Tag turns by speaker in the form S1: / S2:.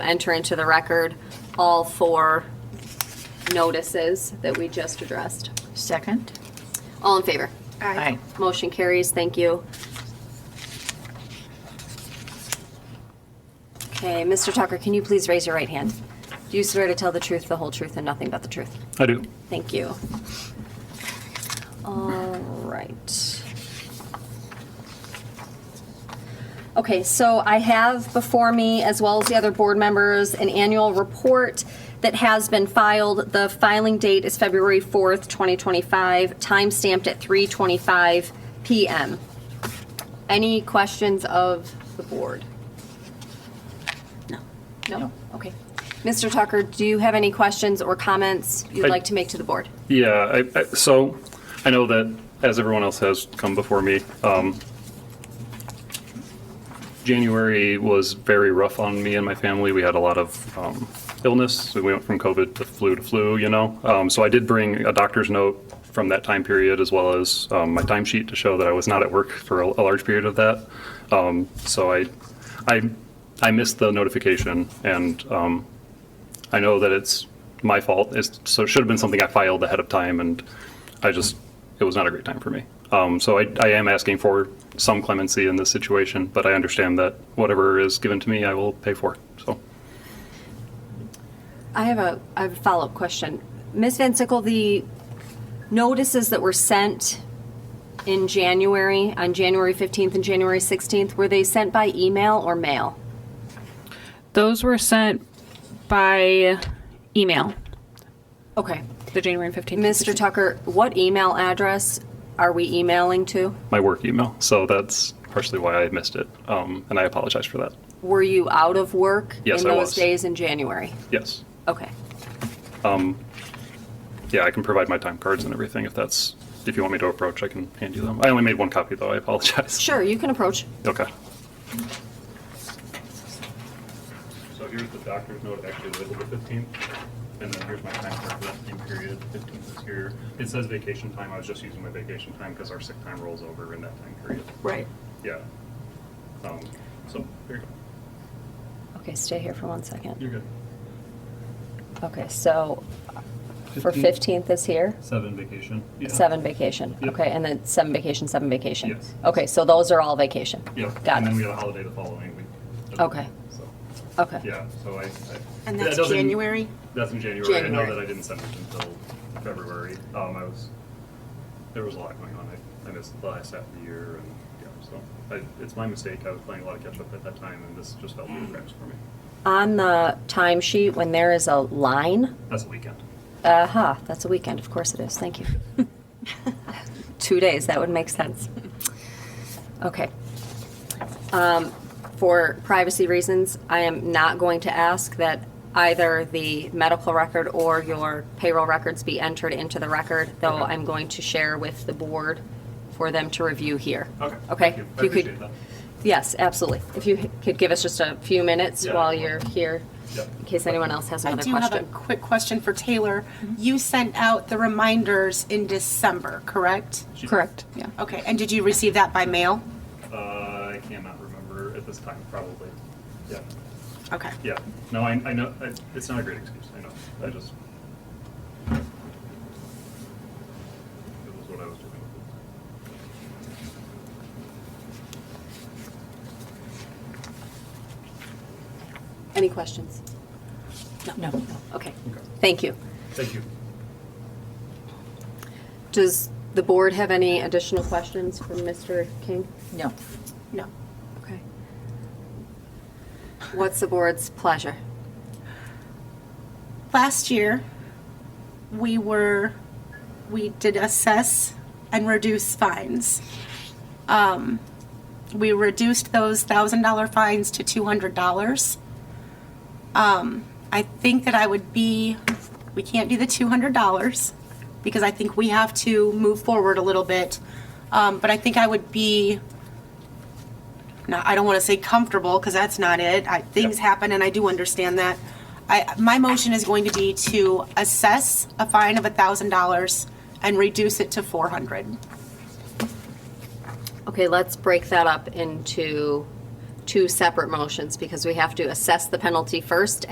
S1: enter into the record all four notices that we just addressed.
S2: Second?
S1: All in favor?
S2: Aye.
S1: Motion carries, thank you. Okay, Mr. Tucker, can you please raise your right hand? Do you swear to tell the truth, the whole truth, and nothing but the truth?
S3: I do.
S1: Thank you. All right. Okay, so I have before me, as well as the other board members, an annual report that has been filed. The filing date is February 4th, 2025, time stamped at 3:25 PM. Any questions of the board?
S2: No.
S1: No?
S2: No.
S1: Okay. Mr. Tucker, do you have any questions or comments you'd
S3: I-
S1: like to make to the board?
S3: Yeah, I, I, so I know that as everyone else has come before me, um, January was very rough on me and my family. We had a lot of um, illness. We went from COVID to flu to flu, you know. Um, so I did bring a doctor's note from that time period as well as um, my timesheet to show that I was not at work for a, a large period of that. Um, so I, I, I missed the notification and um, I know that it's my fault. It's, so it should have been something I filed ahead of time, and I just, it was not a great time for me. Um, so I, I am asking for some clemency in this situation, but I understand that whatever is given to me, I will pay for. So
S1: I have a, I have a follow-up question. Ms. Van Sickle, the notices that were sent in January, on January 15th and January 16th, were they sent by email or mail?
S4: Those were sent by email,
S1: Okay.
S4: the January 15th.
S1: Mr. Tucker, what email address are we emailing to?
S3: my work email. So that's partially why I missed it, um, and I apologize for that.
S1: Were you out of work
S3: Yes,
S1: in
S3: I
S1: those
S3: was.
S1: days in January?
S3: Yes.
S1: Okay.
S3: Yeah, I can provide my time cards and everything if that's, if you want me to approach, I can hand you them. I only made one copy, though. I apologize.
S1: Sure, you can approach.
S3: Okay. So here's the doctor's note, actually labeled the 15th, and then here's my time for that same period, 15th is here. It says vacation time, I was just using my vacation time because our sick time rolls over in that time period.
S2: Right.
S3: Yeah. Um, So, here you go.
S1: Okay, stay here for one second.
S3: You're good.
S1: Okay, so for 15th is here?
S3: Seven vacation. Yeah.
S1: Seven vacation,
S3: Yep.
S1: okay, and then seven vacation, seven vacation?
S3: Yes.
S1: Okay, so those are all vacation?
S3: Yeah,
S1: Got
S3: and then we
S1: it,
S3: had a holiday the following week.
S1: Okay.
S3: So,
S1: okay.
S3: yeah, so I. I-
S2: And
S3: that
S2: that's
S3: doesn't-
S2: January?
S3: That's in January. I know
S2: January.
S3: that I didn't send it until February. Um, I was, there was a lot going on. I, I missed the last half of the year and, yeah, so I, it's my mistake. I was playing a lot of catch up at that time and this just fell through the cracks for me.
S1: On the timesheet, when there is a line,
S3: That's a weekend.
S1: uh-huh, that's a weekend, of course it is, thank you. Two days, that would make sense. Okay. Um, For privacy reasons, I am not going to ask that either the medical record or your payroll records be entered into the record, though
S3: Okay.
S1: I'm going to share with the board for them to review here.
S3: Okay.
S1: Okay?
S3: Thank you. I
S1: If you could-
S3: appreciate that.
S1: Yes, absolutely. If you could give us just a few minutes
S3: Yeah.
S1: while you're here,
S3: Yeah.
S1: in case anyone else has
S5: I
S1: another
S5: do have a
S1: question.
S5: quick question for Taylor. You sent out the reminders in December, correct?
S4: Correct, yeah.
S5: Okay, and did you receive that by mail?
S3: Uh, I cannot remember at this time, probably. Yeah.
S5: Okay.
S3: Yeah. No, I, I know. I, it's not a great excuse. I know. I just. It was what I was doing.
S1: Any questions?
S2: No.
S1: Okay,
S3: Okay.
S1: thank you.
S3: Thank you.
S1: Does the board have any additional questions for Mr. King?
S2: No.
S5: No.
S1: Okay. What's the board's pleasure?
S5: Last year, we were, we did assess and reduce fines. Um, we reduced those thousand dollar fines to two hundred dollars. Um, I think that I would be, we can't do the two hundred dollars because I think we have to move forward a little bit. Um, but I think I would be, not, I don't want to say comfortable because that's not it. I, things happen and I do understand that. I, my motion is going to be to assess a fine of a thousand dollars and reduce it to four hundred.
S1: Okay, let's break that up into two separate motions because we have to assess the penalty first